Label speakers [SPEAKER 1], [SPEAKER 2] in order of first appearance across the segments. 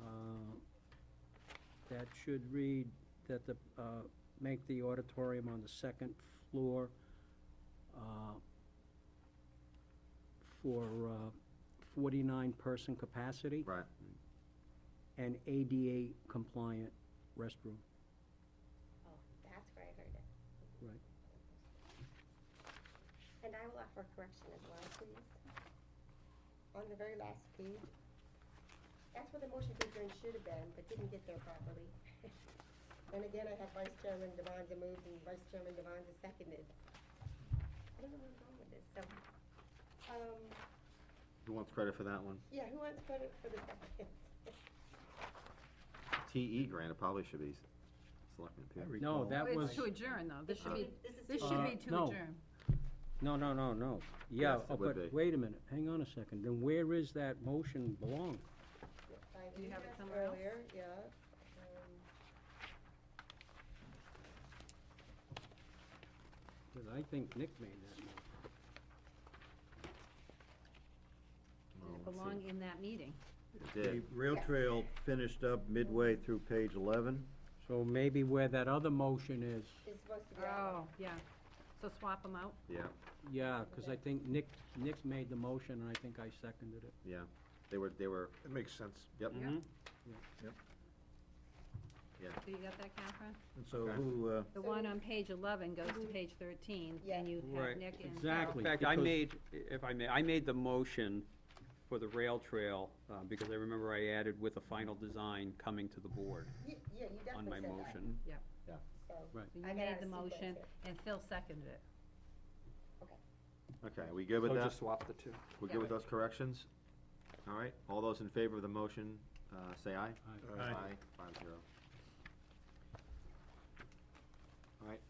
[SPEAKER 1] Uh, should read that the, uh, make the auditorium on the second floor, uh, for, uh, forty-nine person capacity
[SPEAKER 2] Right.
[SPEAKER 1] and ADA compliant restroom.
[SPEAKER 3] Oh, that's where I heard it.
[SPEAKER 1] Right.
[SPEAKER 3] And I will offer correction as well, please. On the very last page, that's where the motion to adjourn should have been, but didn't get there properly. And again, I have Vice Chairman Devanza moved and Vice Chairman Devanza seconded. I don't know what's wrong with this, so, um,
[SPEAKER 2] Who wants credit for that one?
[SPEAKER 3] yeah, who wants credit for the second?
[SPEAKER 2] TE E grant, it probably should be s- Selectmen Pierce.
[SPEAKER 1] No, that
[SPEAKER 4] Well,
[SPEAKER 1] was,
[SPEAKER 4] It's to adjourn, though. This should be, this
[SPEAKER 1] Uh,
[SPEAKER 4] should be to
[SPEAKER 1] no.
[SPEAKER 4] adjourn.
[SPEAKER 1] no, no, no, no. Yeah,
[SPEAKER 2] Yes, it
[SPEAKER 1] oh,
[SPEAKER 2] would
[SPEAKER 1] but
[SPEAKER 2] be.
[SPEAKER 1] wait a minute, hang on a second. Then where is that motion belong?
[SPEAKER 3] I
[SPEAKER 4] Do you
[SPEAKER 3] did
[SPEAKER 4] have it
[SPEAKER 3] ask
[SPEAKER 4] somewhere else?
[SPEAKER 3] earlier, Yeah. Um,
[SPEAKER 1] Because I think Nick made that motion.
[SPEAKER 2] Oh,
[SPEAKER 4] Does it
[SPEAKER 2] let's see.
[SPEAKER 4] belong in that meeting?
[SPEAKER 2] It
[SPEAKER 5] The
[SPEAKER 2] did.
[SPEAKER 5] rail
[SPEAKER 3] Yes.
[SPEAKER 5] trail finished up midway through page eleven.
[SPEAKER 1] So maybe where that other motion is,
[SPEAKER 3] It's supposed to be. on
[SPEAKER 4] Oh, yeah. So swap them out?
[SPEAKER 2] Yeah,
[SPEAKER 1] yeah, because I think Nick, Nick made the motion, and I think I seconded it.
[SPEAKER 2] yeah. They were, they were,
[SPEAKER 6] It makes sense.
[SPEAKER 2] yep.
[SPEAKER 7] Mm-hmm.
[SPEAKER 4] Yeah.
[SPEAKER 2] Yeah.
[SPEAKER 4] So you got that, Catherine?
[SPEAKER 5] And so
[SPEAKER 2] Okay.
[SPEAKER 5] who, uh,
[SPEAKER 4] The
[SPEAKER 3] So-
[SPEAKER 4] one on page eleven goes
[SPEAKER 3] Mm-hmm.
[SPEAKER 4] to page thirteen,
[SPEAKER 3] Yeah.
[SPEAKER 4] and you have
[SPEAKER 7] Right.
[SPEAKER 4] Nick and.
[SPEAKER 1] Exactly.
[SPEAKER 7] In fact, I
[SPEAKER 1] because-
[SPEAKER 7] made, if I may, I made the motion for the rail trail, uh, because I remember I added with a final design coming to the board
[SPEAKER 3] Yeah, yeah, you
[SPEAKER 7] on
[SPEAKER 3] definitely
[SPEAKER 7] my
[SPEAKER 3] said that,
[SPEAKER 7] motion.
[SPEAKER 3] so.
[SPEAKER 4] So you
[SPEAKER 3] I
[SPEAKER 4] made
[SPEAKER 3] gotta
[SPEAKER 4] the
[SPEAKER 3] see that
[SPEAKER 4] motion,
[SPEAKER 3] too.
[SPEAKER 4] and Phil seconded it.
[SPEAKER 2] Okay, we good with
[SPEAKER 7] So
[SPEAKER 2] that?
[SPEAKER 7] just swap the two.
[SPEAKER 2] We good with those corrections? All right, all those in favor of the motion, uh, say aye.
[SPEAKER 6] Aye.
[SPEAKER 2] Five zero. All right,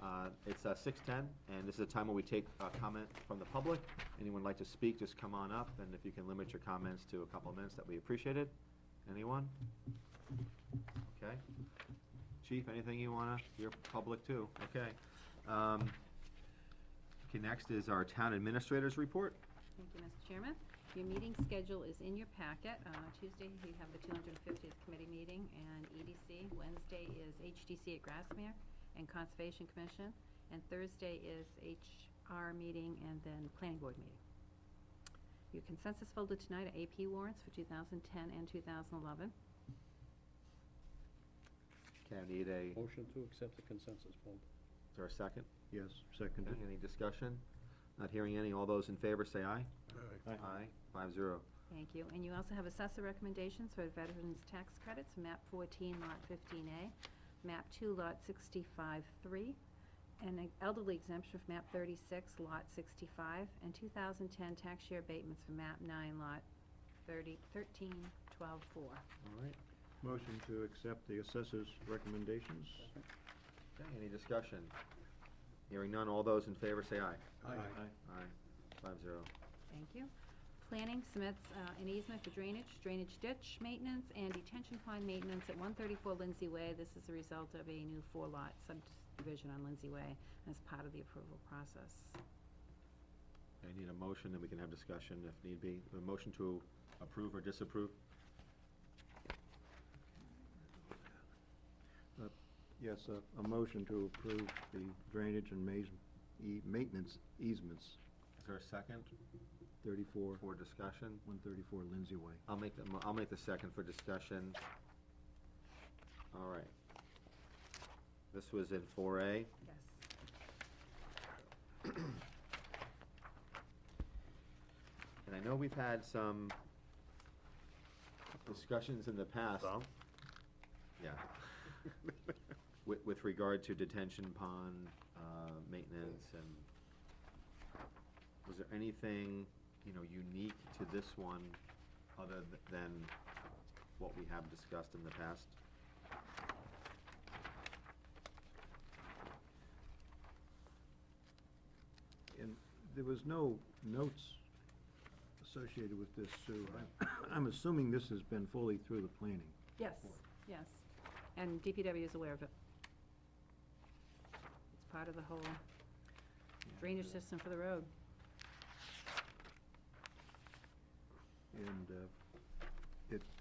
[SPEAKER 2] uh, it's, uh, six ten, and this is a time where we take, uh, comment from the public. Anyone like to speak, just come on up, and if you can limit your comments to a couple of minutes, that we appreciate it. Anyone? Okay. Chief, anything you wanna, you're public too, okay. Um, okay, next is our town administrators report.
[SPEAKER 4] Thank you, Mr. Chairman. Your meeting schedule is in your packet. Uh, Tuesday, we have the 250th committee meeting and EDC. Wednesday is HDC at Grassmere and Conservation Commission. And Thursday is HR meeting and then Planning Board meeting. Your consensus folder tonight are AP warrants for 2010 and 2011.
[SPEAKER 2] Okay, I need a, is
[SPEAKER 1] Motion to accept the consensus vote.
[SPEAKER 2] there a second?
[SPEAKER 5] yes, seconded.
[SPEAKER 2] Any discussion? Not hearing any. All those in favor say aye.
[SPEAKER 6] Aye.
[SPEAKER 5] Aye.
[SPEAKER 2] Five zero.
[SPEAKER 4] Thank you. And you also have assessor recommendations for veterans tax credits, map fourteen, lot fifteen A, map two, lot sixty-five, three, and an elderly exemption for map thirty-six, lot sixty-five, and two thousand ten tax year abatements for map nine, lot thirty, thirteen, twelve, four.
[SPEAKER 2] All right.
[SPEAKER 5] Motion to accept the assessor's recommendations.
[SPEAKER 2] Okay, any discussion? Hearing none. All those in favor say aye. Aye. Five zero.
[SPEAKER 4] Thank you. Planning submits uh, an easement for drainage, drainage ditch maintenance, and detention pond maintenance at 134 Lindsay Way. This is the result of a new four-lot subdivision on Lindsay Way as part of the approval process.
[SPEAKER 2] I need a motion, and we can have discussion if need be. A motion to approve or disapprove?
[SPEAKER 5] Yes, a, a motion to approve the drainage and mais, e, maintenance easements,
[SPEAKER 2] Is there a second
[SPEAKER 5] thirty-four,
[SPEAKER 2] for discussion?
[SPEAKER 5] one thirty-four Lindsay Way.
[SPEAKER 2] I'll make the, mo- I'll make the second for discussion. All right. This was in four A.
[SPEAKER 4] Yes.
[SPEAKER 2] And I know we've had some discussions in the past. Yeah. With, with regard to detention pond, uh, maintenance and was there anything, you know, unique to this one other th- than what we have discussed in the past?
[SPEAKER 5] And there was no notes associated with this, Sue. I'm- I'm assuming this has been fully through the planning.
[SPEAKER 4] Yes, yes. And DPW is aware of it. It's part of the whole drainage system for the road.
[SPEAKER 5] And uh, it